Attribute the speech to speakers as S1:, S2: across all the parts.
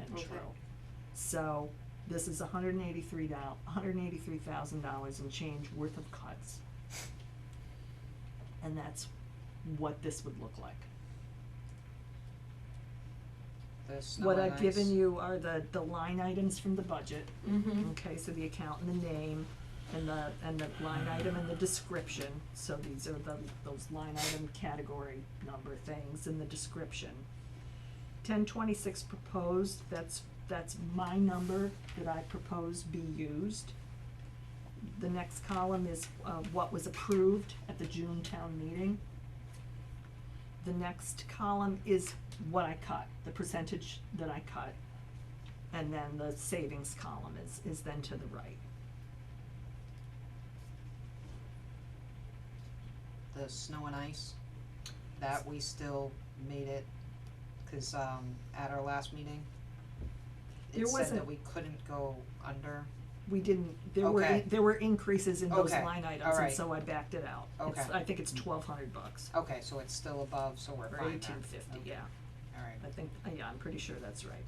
S1: and
S2: Okay.
S1: True. So, this is hundred and eighty-three doll- hundred and eighty-three thousand dollars and change worth of cuts. And that's what this would look like.
S2: The snow
S1: What
S2: and
S1: I've
S2: ice.
S1: given you are the, the line items from the budget,
S3: Mm-hmm.
S2: Mhm.
S1: okay, so the account and the name and the, and the line item and the description, so these are the, those line item category number things and the description. Ten twenty-six proposed, that's, that's my number that I propose be used. The next column is, uh, what was approved at the June town meeting. The next column is what I cut, the percentage that I cut. And then the savings column is, is then to the right.
S2: The snow and ice, that we still made it, cause um at our last meeting,
S1: There
S2: it said that
S1: wasn't-
S2: we couldn't go under,
S1: We didn't, there were,
S2: Okay.
S1: in- there were increases in those
S2: Okay,
S1: line items, and
S2: alright.
S1: so I backed it out. It's-
S2: Okay.
S1: I think it's twelve hundred bucks,
S2: okay, so it's still above, so we're
S1: or
S2: fine
S1: eighteen fifty, yeah,
S2: Alright,
S1: I think, uh, yeah, I'm pretty sure that's right.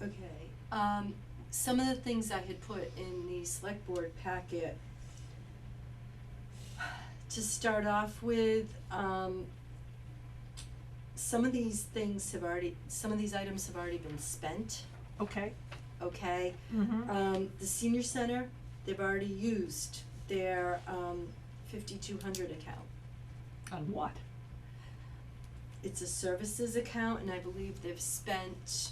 S3: Okay, um, some of the things I had put in the select board packet. To start off with, um, some of these things have already, some of these items have already been spent,
S1: Okay,
S3: okay?
S1: mm-hmm,
S3: Um, the senior center, they've already used their, um, fifty-two hundred account.
S1: on what?
S3: It's a services account and I believe they've spent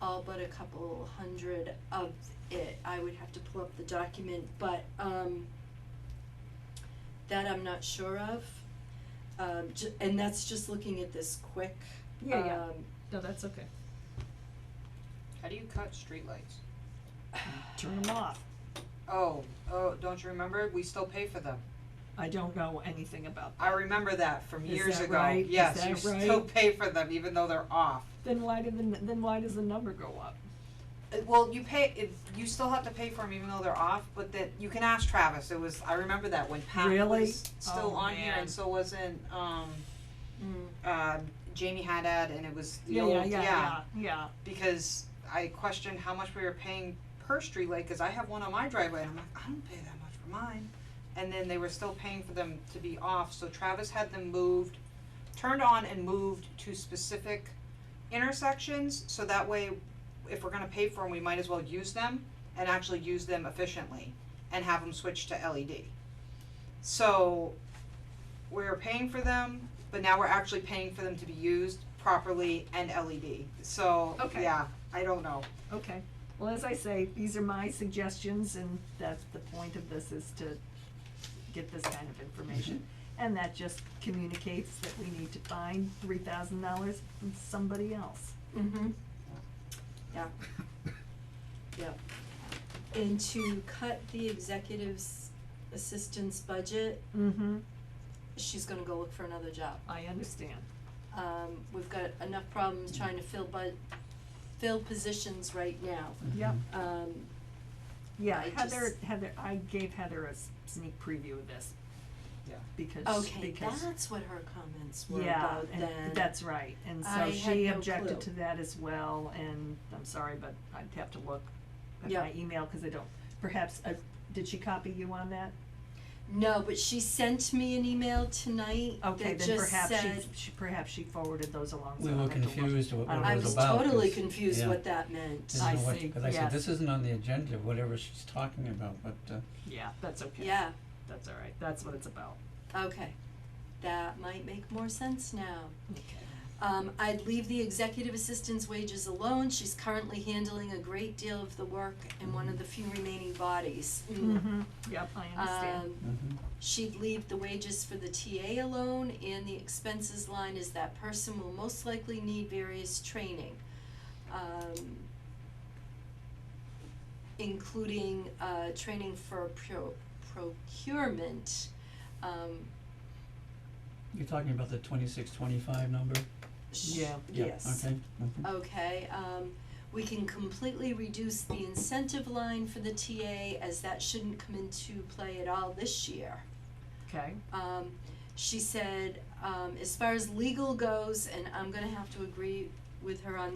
S3: all but a couple hundred of it. I would have to pull up the document, but um that I'm not sure of. Um ju- and that's just looking at this quick.
S1: Yeah, yeah,
S3: um,
S1: Uh, no, that's okay,
S2: how do you cut streetlights?
S1: turn them off,
S2: Oh, oh, don't you remember, we still pay for them,
S1: I don't know anything about that.
S2: I remember that from
S1: Is
S2: years
S1: that
S2: ago,
S1: right? Is
S2: yes,
S1: that
S2: you still
S1: right?
S2: pay for them even though they're off.
S1: Then why did the, n- then why does the number go up?
S2: Uh, Well, you pay, if, you still have to pay for them even though they're off, but that, you can ask Travis, it was, I remember that when Pat
S1: Really?
S2: was still
S1: Oh,
S2: on here
S1: man.
S2: and so wasn't, um,
S3: mm,
S2: uh, Jamie Haddad and it was the
S1: Yeah,
S2: old,
S1: yeah, yeah, yeah, yeah,
S2: Because I questioned how much we were paying per street light, cause I have one on my driveway and I'm like, I don't pay that much for mine. And then they were still paying for them to be off, so Travis had them moved, turned on and moved to specific intersections, so that way if we're gonna pay for them, we might as well use them and actually use them efficiently and have them switch to LED. So we're paying for them, but now we're actually paying for them to be used properly and LED. So,
S1: Okay.
S2: yeah, I don't know.
S1: okay. Well, as I say, these are my suggestions, and that's the point of this, is to get this kind of information.
S3: Mm-hmm.
S1: And that just communicates that we need to find three thousand dollars from somebody else. Mm-hmm.
S3: mhm. Yeah.
S4: Mm-hmm.
S3: Yeah. And to cut the executive's assistant's budget,
S1: Mm-hmm.
S3: she's gonna go look for another job.
S1: I understand.
S3: um, we've got enough problems trying to fill bu- fill positions right now.
S1: Yep.
S3: Um,
S1: Yeah,
S3: I
S1: Heather,
S3: just-
S1: Heather, I gave Heather a s- sneak preview of this.
S2: Yeah.
S1: Because,
S3: okay,
S1: because,
S3: that's what her comments were
S1: yeah,
S3: about then.
S1: and that's right, and
S3: I
S1: so
S3: had
S1: she
S3: no
S1: objected
S3: clue.
S1: to that as well, and I'm sorry, but I'd have to look at
S3: Yeah.
S1: my email, cause I don't, perhaps, uh, did she copy you on that?
S3: No, but she sent me an email tonight
S1: Okay,
S3: that
S1: then
S3: just
S1: perhaps she,
S3: said,
S1: she, perhaps she forwarded those along, so
S4: We
S1: I'll
S4: were
S1: have to look.
S4: confused what
S1: I
S4: what
S3: I
S4: it
S1: don't
S4: was
S3: was
S4: about,
S3: totally
S4: 'cause-
S3: confused
S4: yeah.
S3: what that meant.
S4: This
S1: Uh, I
S4: isn't what-
S1: see,
S4: 'cause I
S1: yeah.
S4: said, this isn't on the agenda, whatever she's talking about, but, uh,
S1: Yeah, that's okay.
S3: Yeah,
S1: That's all right, that's what it's about.
S3: okay, that might make more sense now.
S1: Okay.
S3: Um, I'd leave the executive assistant's wages alone, she's currently handling a great deal of the work in one of the few remaining bodies. Mm.
S1: Mm-hmm, yep, I understand.
S3: Um,
S4: mhm.
S3: She'd leave the wages for the TA alone and the expenses line is that person will most likely need various training. Um, including, uh, training for pro- procurement, um,
S4: You're talking about the twenty-six, twenty-five number?
S3: sh-
S1: Yeah.
S4: Yeah,
S3: yes.
S4: Okay, mhm.
S1: Oh,
S3: Okay, um, we can completely reduce the incentive line for the TA as that shouldn't come into play at all this year.
S1: Okay,
S3: um, she said, um, as far as legal goes, and I'm gonna have to agree with her on